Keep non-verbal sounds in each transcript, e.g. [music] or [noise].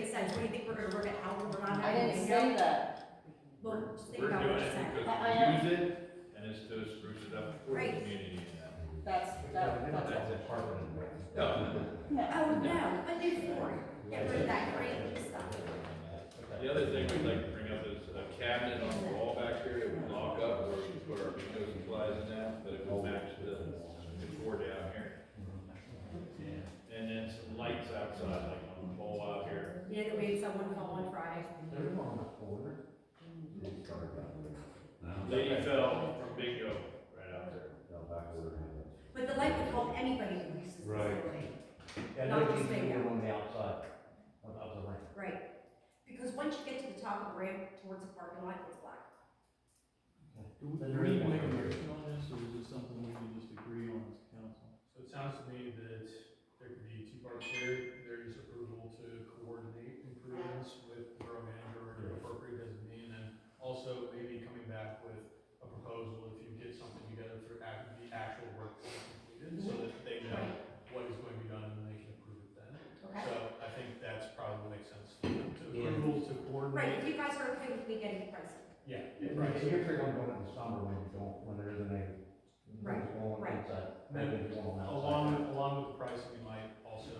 we think we're gonna work it out, we're not. I didn't say that. Well, just think We're about doing what it you're saying. I- I am- because we use it, and it's to spruce it up for the Right. community and that. That's, that, that's it. No, Yeah. Oh, no, but do four, get rid of that green stuff. the other thing we'd like to bring up is a cabinet on the wall back here, that we lock up where we put our windows and flies and that, but it will match the, the door down here. And then some lights outside, like on the pole out here. Yeah, that we had someone call on Friday. Lady fell from bingo right out there. But the light would help anybody who uses this Right. building. Yeah, no, you can do it on the outside of, of the ramp. Right, because once you get to the top of the ramp towards the parking lot, it's black. Do we, do we need to make a motion on this, or is this something we can just agree on as council? So it sounds to me that there could be two parts here, there is approval to coordinate improvements with the borough manager or an appropriate designee, and then also maybe coming back with a proposal if you get something together for act- the actual work that's completed, so that they know Right. what is going to be done and they can approve it then. Okay. So I think that's probably what makes sense, to approval to Right, coordinate. if you guys are okay with me getting the price, Yeah. Right, so you're figuring one in the summer when you don't, when there isn't any. Right, right. Maybe it's one on the outside. Along, with- along with the price, we might also,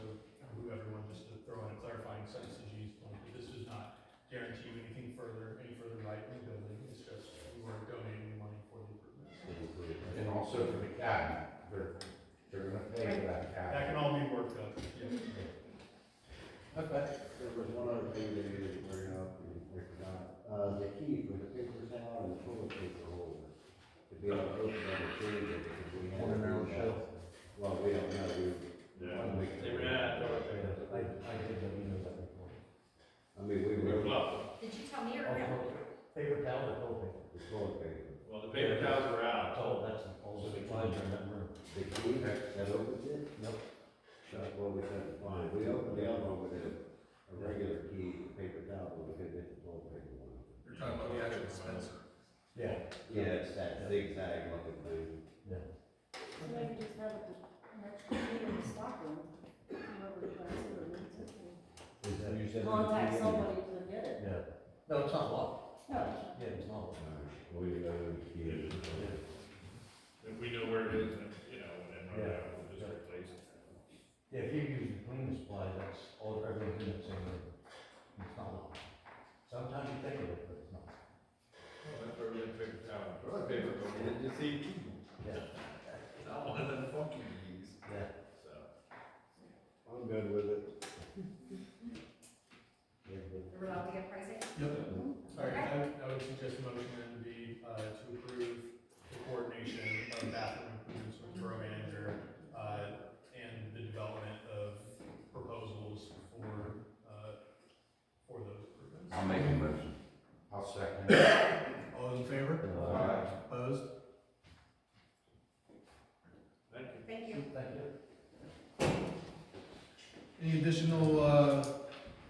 move everyone just to throw in a clarifying sentence to Gene's point, that this does not guarantee you anything further, any further right in the building, it's just we were donating the money for the improvements. And also for the cabinet, they're, they're gonna pay for that That cabinet. can all be worked out, yes. Okay. There was one other thing they needed to bring up, and we forgot, uh, the key for the paper towel and the toilet paper holder. To be able to open up and change it, because we have. On their own shelf. Well, we don't know, we. They ran out of door I, there. I did that, you know that before. I mean, We we were, the bluffed. did you tell me or no? Oh, Paper towel or toilet paper? toilet paper, Well, the paper towels were out. Oh, that's an old supplies in that room. the key that that opens it? Yep. That's what we said, fine, we opened the other one with a, a regular key, paper towel, we could get the toilet paper one. You're talking about the actual dispenser. Yeah. Yeah, it's that zigzag looking thing. So maybe just have an extra meeting in the stockroom, whoever plans it or needs Is it, that- you and said- contact somebody to get it. Yeah. No, it's not locked. No, Yeah, it's not locked. We, uh, key. If we know where it is, then, you know, when it runs out, we'll just replace it. Yeah, if you're using cleaning supplies, that's all, everything that's in there. It's not locked. Sometimes you think of it, but it's not. Well, That's where we had paper towel. Toilet paper, but it's the key. Yeah. Not one of them funky keys. Yeah. So. I'm good with it. [laughs] We're allowed to get pricing? All right, I would, I would suggest the motion then to be, uh, to approve the coordination of bathroom improvements with borough manager, uh, and the development of proposals for, uh, for those improvements. I'll make a motion. I'll second it. All those in favor? Aye. Opposed? Thank you. Thank you. Thank you. Any additional, uh,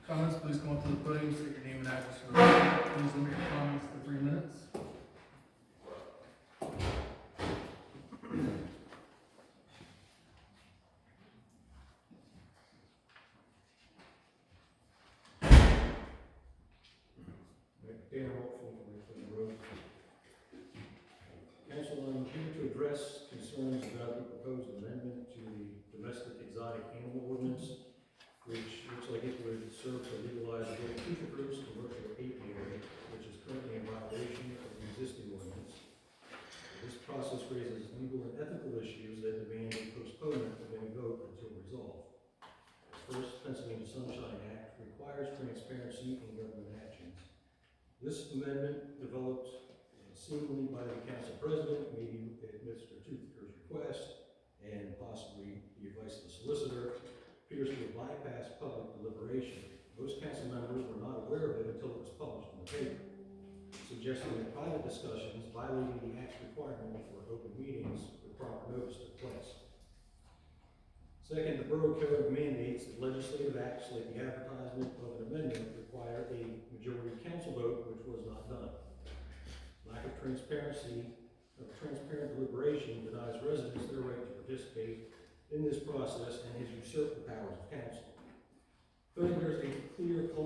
comments, please come up to the podium, state your name and address for the record. Please limit your comments to three minutes. Dan Hopefull from Lakeland Road. Council, I'm here to address concerns about the proposed amendment to the domestic exotic animal ordinance, which looks like it would serve to legalize the future groups commercial apiary, which is currently in violation of the existing ordinance. This process raises legal and ethical issues that demand a postponement of any vote until resolved. First, Pennsylvania Sunshine Act requires transparency in government actions. This amendment developed seemingly by the council president, meeting at Mr. Toothaker's request, and possibly the advice of the solicitor, appears to have bypassed public deliberation. Most council members were not aware of it until it was published in the paper, suggesting that private discussions violating the act's requirement for open meetings with proper notice took place. Second, the Borough Code mandates that legislative acts like the advertisement of